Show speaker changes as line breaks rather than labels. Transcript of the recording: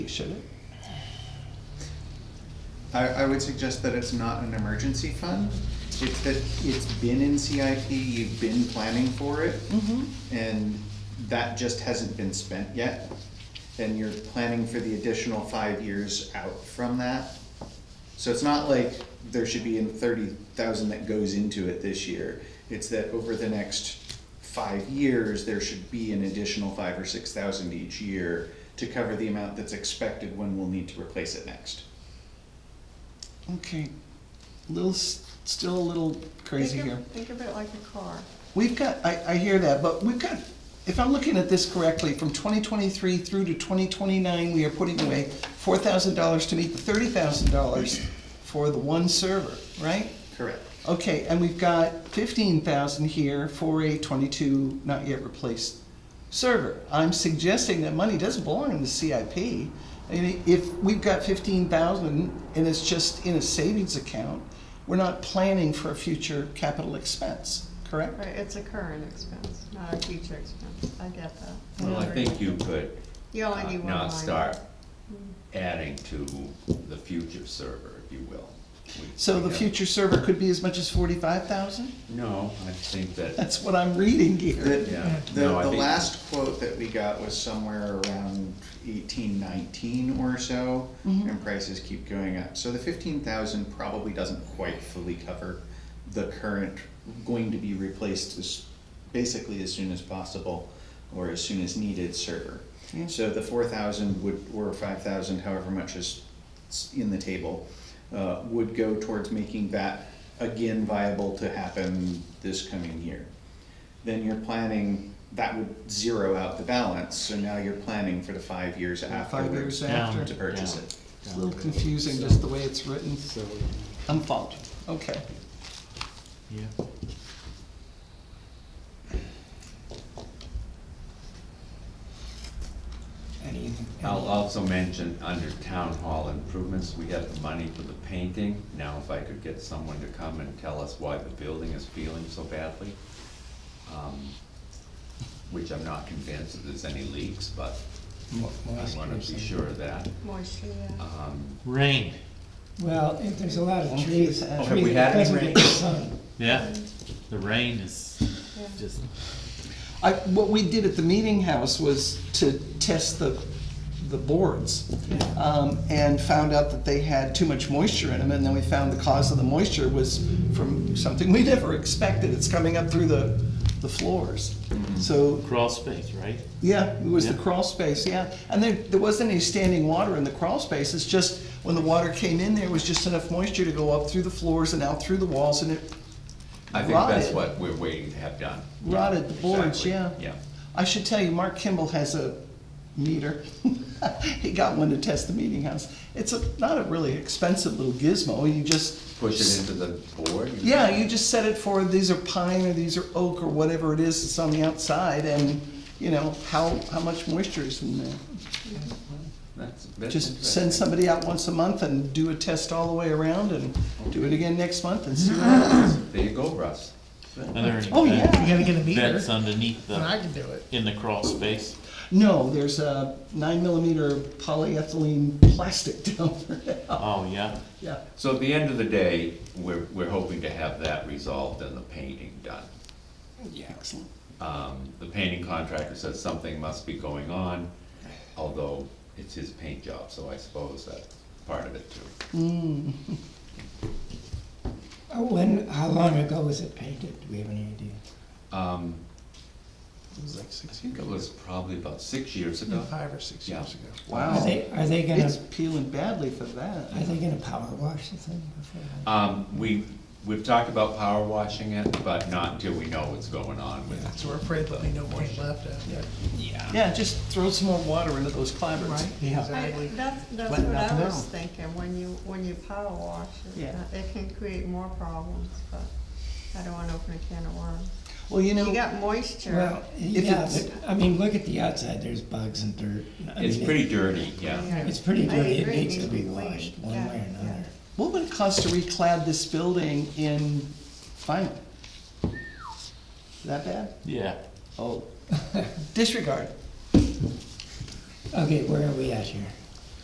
Should it?
I, I would suggest that it's not an emergency fund. It's that it's been in CIP, you've been planning for it, and that just hasn't been spent yet. And you're planning for the additional five years out from that. So it's not like there should be in thirty thousand that goes into it this year. It's that over the next five years, there should be an additional five or six thousand each year to cover the amount that's expected when we'll need to replace it next.
Okay. Little, s- still a little crazy
Think
here.
of- Think of it like a car.
We've got, I, I hear that, but we've got, if I'm looking at this correctly, from twenty twenty-three through to twenty twenty-nine, we are putting away four thousand dollars to meet the thirty thousand dollars for the one server, right?
Correct.
Okay, and we've got fifteen thousand here for a twenty-two not yet replaced server. I'm suggesting that money doesn't belong in the CIP. And if we've got fifteen thousand and it's just in a savings account, we're not planning for a future capital expense, correct?
Right, it's a current expense, not a future expense. I get that.
Well, I
agree.
think you could
You
uh,
only need one line.
now start adding to the future server, if you will. We-
So
we
the
have-
future server could be as much as forty-five thousand?
No, I think that,
That's what I'm reading here.
Yeah.
The, the,
No, I
the
think-
last quote that we got was somewhere around eighteen nineteen or so, and prices keep going up. So the fifteen thousand probably doesn't quite fully cover the current, going to be replaced as, basically as soon as possible, or as soon as needed server.
Yeah.
So the four thousand would, or five thousand, however much is s- in the table, uh, would go towards making that again viable to happen this coming year then you're planning, that would zero out the balance, so now you're planning for the five years afterwards.
uh, Five years after.
To purchase it.
It's a little confusing, just the way it's written.
So,
I'm following, okay.
yeah.
Any-
I'll also mention, under town hall improvements, we have the money for the painting. Now, if I could get someone to come and tell us why the building is feeling so badly, um, which I'm not convinced that there's any leaks, but I wanna be sure of that.
Moisture, yeah.
Um,
Rain,
Well, if there's a lot of
Oh,
trees,
geez. Oh, have
trees
we
that
had any
doesn't
rain?
get sun.
yeah, the rain is
Yeah.
just,
I, what we did at the meeting house was to test the, the boards. Um, and found out that they had too much moisture in them, and then we found the cause of the moisture was from something we never expected. It's coming up through the, the floors. So,
crawl space, right?
yeah, it was the
Yeah.
crawl space, yeah. And there, there wasn't any standing water in the crawl space, it's just, when the water came in, there was just enough moisture to go up through the floors and out through the walls, and it
I think that's
Rotted.
what we're waiting to have done.
rotted the boards,
Exactly,
yeah.
Yeah.
I should tell you, Mark Kimball has a meter. He got one to test the meeting house. It's a, not a really expensive little gizmo, you just.
Push it into the board? you-
Yeah, you just set it for, these are pine, or these are oak, or whatever it is that's on the outside, and, you know, how, how much moisture is in there.
That's, that's
Just send
interesting.
somebody out once a month and do a test all the way around, and do it again next month and see what happens.
There you go, Russ.
Oh, yeah.
You gotta get a meter,
uh,
That's underneath
and I
the,
can do it.
in the crawl space.
No, there's a nine millimeter polyethylene plastic down there now.
Oh, yeah,
Yeah.
So at the end of the day, we're, we're hoping to have that resolved and the painting done.
Yeah. Excellent.
Um, the painting contractor says something must be going on, although it's his paint job, so I suppose that's part of it too.
Oh, When, how long ago was it painted? Do we have any idea?
Um,
It was like six
I think it was probably about six years ago.
Five or six
Yeah.
years ago.
Are
Wow.
they, are they gonna,
It's peeling badly for
are
that.
they gonna power wash the thing before?
Um, we, we've talked about power washing it, but not until we know what's going on with it.
So we're afraid there'll be no paint left after.
Yeah, just throw some more water into those clavards.
Yeah.
I-
Exactly.
That's, that's
But
what
nothing
I was
else.
thinking, when you, when you power wash, it's
Yeah.
not- it can create more problems, but I don't wanna open a can of worms.
Well, you
You
know,
got moisture,
Well, yeah,
it's-
but, I mean, look at the outside, there's bugs and dirt. I
It's
mean, it-
pretty dirty, yeah.
Yeah.
It's pretty
I
dirty, it
agree,
needs to
needs
be
to be
washed,
cleaned.
one
Yeah,
way or another.
what would it cost to reclad this building in vinyl? That bad?
yeah.
Oh, disregard.
Okay, where are we at here?